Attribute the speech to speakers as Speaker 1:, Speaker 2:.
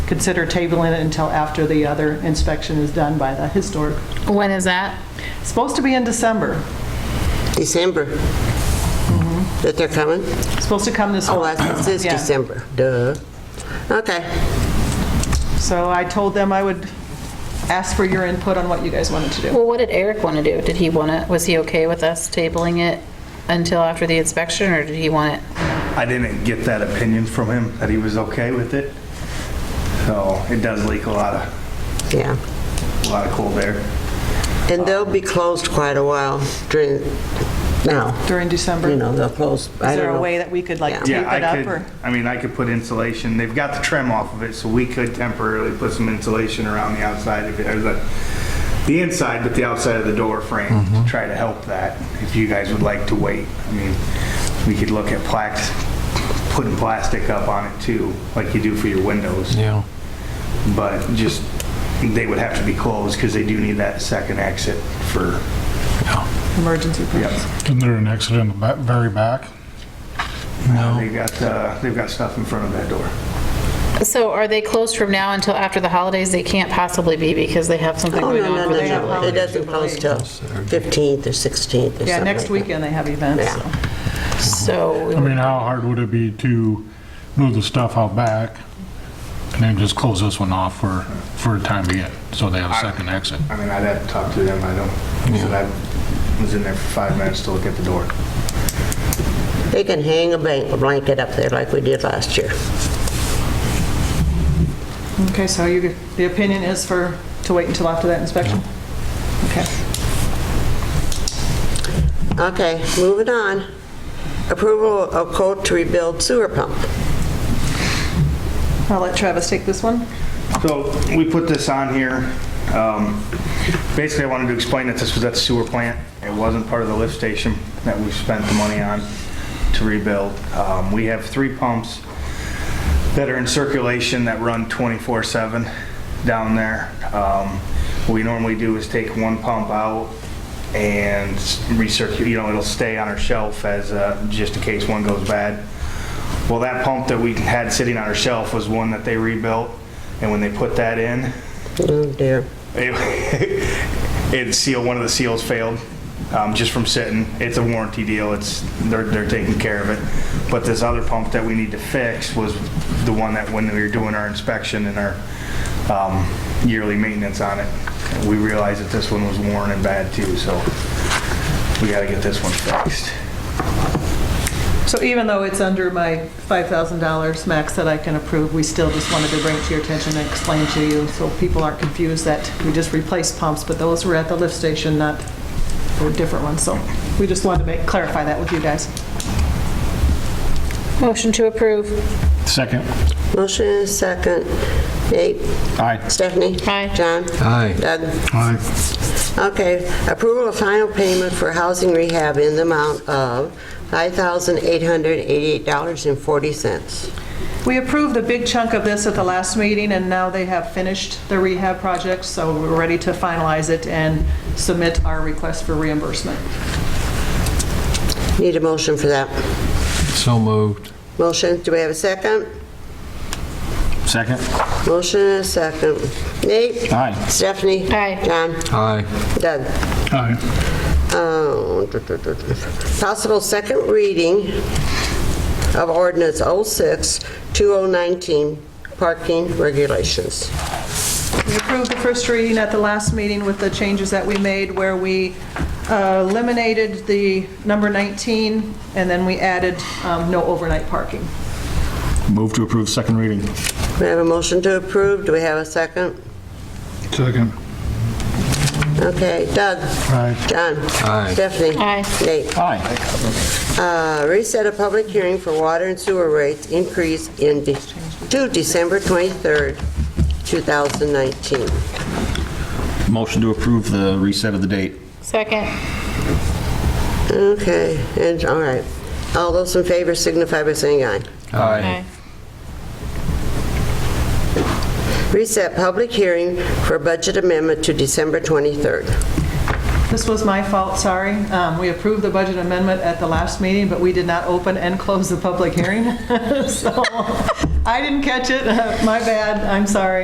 Speaker 1: consider tabling it until after the other inspection is done by the historic.
Speaker 2: When is that?
Speaker 1: It's Supposed to be in December.
Speaker 3: December. That they're coming?
Speaker 1: It's Supposed to come this.
Speaker 3: Oh, that's, this is
Speaker 1: Yeah.
Speaker 3: December, duh. Okay,
Speaker 1: So I told them I would ask for your input on what you guys wanted to do.
Speaker 2: Well, what did Eric want to do? Did he want to, was he okay with us tabling it until after the inspection, or did he want it?
Speaker 4: I didn't get that opinion from him, that he was okay with it. So it does leak a lot of,
Speaker 3: yeah.
Speaker 4: a lot of cold air.
Speaker 3: And they'll be closed quite a while during, now,
Speaker 1: During December?
Speaker 3: you know, they'll close, I
Speaker 1: Is there
Speaker 3: don't
Speaker 1: a way
Speaker 3: know.
Speaker 1: that we could like
Speaker 3: Yeah.
Speaker 1: tape
Speaker 4: Yeah,
Speaker 1: it
Speaker 4: I
Speaker 1: up
Speaker 4: could,
Speaker 1: or?
Speaker 4: I mean, I could put insulation, they've got the trim off of it, so we could temporarily put some insulation around the outside of it, or the, the inside, but the outside of the door frame, to try to help that, if you guys would like to wait. I mean, we could look at plaques, putting plastic up on it too, like you do for your windows.
Speaker 5: Yeah.
Speaker 4: But just, they would have to be closed, because they do need that second exit for,
Speaker 1: Emergency
Speaker 4: yep.
Speaker 6: Isn't there an exit in the ba- very back?
Speaker 4: They've got, uh, they've got stuff in front of that door.
Speaker 2: So are they closed from now until after the holidays? They can't possibly be because they have something
Speaker 3: Oh,
Speaker 2: going
Speaker 3: no,
Speaker 2: on
Speaker 3: no,
Speaker 2: for the
Speaker 3: no, no, it
Speaker 2: holidays.
Speaker 3: doesn't close till 15th or 16th or something.
Speaker 1: Yeah, next
Speaker 3: like
Speaker 1: weekend they have events,
Speaker 3: Yeah.
Speaker 1: so.
Speaker 2: So we
Speaker 6: I mean, how hard would it be to move the stuff out back and then just close this one off for, for a time being, so they have a second exit?
Speaker 4: I mean, I'd have to talk to them, I don't, so I was in there for five minutes to look at the door.
Speaker 3: that. They can hang a ban- blanket up there like we did last year.
Speaker 1: Okay, so you, the opinion is for, to wait until after that inspection? Okay.
Speaker 3: Okay, moving on. Approval of code to rebuild sewer pump.
Speaker 1: I'll let Travis take this one.
Speaker 4: So we put this on here. um, Basically, I wanted to explain that this was at the sewer plant. It wasn't part of the lift station that we spent the money on to rebuild. Um, We have three pumps that are in circulation that run 24/7 down there. Um, What we normally do is take one pump out and recirculate, you know, it'll stay on our shelf as, uh, just in case one goes bad. Well, that pump that we had sitting on our shelf was one that they rebuilt, and when they put that in,
Speaker 3: Oh dear.
Speaker 4: it, it seal one of the seals failed um, just from sitting. It's a warranty deal. It's they're they're taking care of it. But this other pump that we need to fix was the one that when we were doing our inspection and our um, yearly maintenance on it, we realized that this one was worn and bad too. So we got to get this one fixed.
Speaker 1: So even though it's under my $5,000 max that I can approve, we still just wanted to bring it to your attention and explain to you so people aren't confused that we just replaced pumps, but those were at the lift station, not, they were different ones. So we just wanted to make, clarify that with you guys.
Speaker 2: Motion to approve.
Speaker 6: Second.
Speaker 3: Motion and second. Nate?
Speaker 6: Aye.
Speaker 3: Stephanie?
Speaker 2: Aye.
Speaker 3: John?
Speaker 5: Aye.
Speaker 3: Doug?
Speaker 6: Aye.
Speaker 3: Okay, approval of final payment for housing rehab in the amount of $5,888.40.
Speaker 1: We approved a big chunk of this at the last meeting, and now they have finished the rehab project, so we're ready to finalize it and submit our request for reimbursement.
Speaker 3: Need a motion for that.
Speaker 5: So moved.
Speaker 3: Motion, do we have a second?
Speaker 6: Second.
Speaker 3: Motion and a second. Nate?
Speaker 6: Aye.
Speaker 3: Stephanie?
Speaker 2: Aye.
Speaker 3: John?
Speaker 5: Aye.
Speaker 3: Doug?
Speaker 6: Aye.
Speaker 3: Oh, duh, duh, duh, duh. Possible second reading of ordinance 06-2019, parking regulations.
Speaker 1: We approved the first reading at the last meeting with the changes that we made where we uh, eliminated the number 19, and then we added um, no overnight parking.
Speaker 6: Move to approve second reading.
Speaker 3: We have a motion to approve, do we have a second?
Speaker 6: Second.
Speaker 3: Okay, Doug?
Speaker 6: Aye.
Speaker 3: John?
Speaker 5: Aye.
Speaker 3: Stephanie?
Speaker 2: Aye.
Speaker 3: Nate?
Speaker 6: Aye.
Speaker 3: Uh, Reset a public hearing for water and sewer rates increase in, de- to December 23rd, 2019.
Speaker 7: Motion to approve the reset of the date.
Speaker 2: Second.
Speaker 3: Okay, and, all right. All those in favor signify by saying aye.
Speaker 2: Aye.
Speaker 3: Reset public hearing for budget amendment to December 23rd.
Speaker 1: This was my fault, sorry. Um, We approved the budget amendment at the last meeting, but we did not open and close the public hearing. So I didn't catch it, my bad, I'm sorry.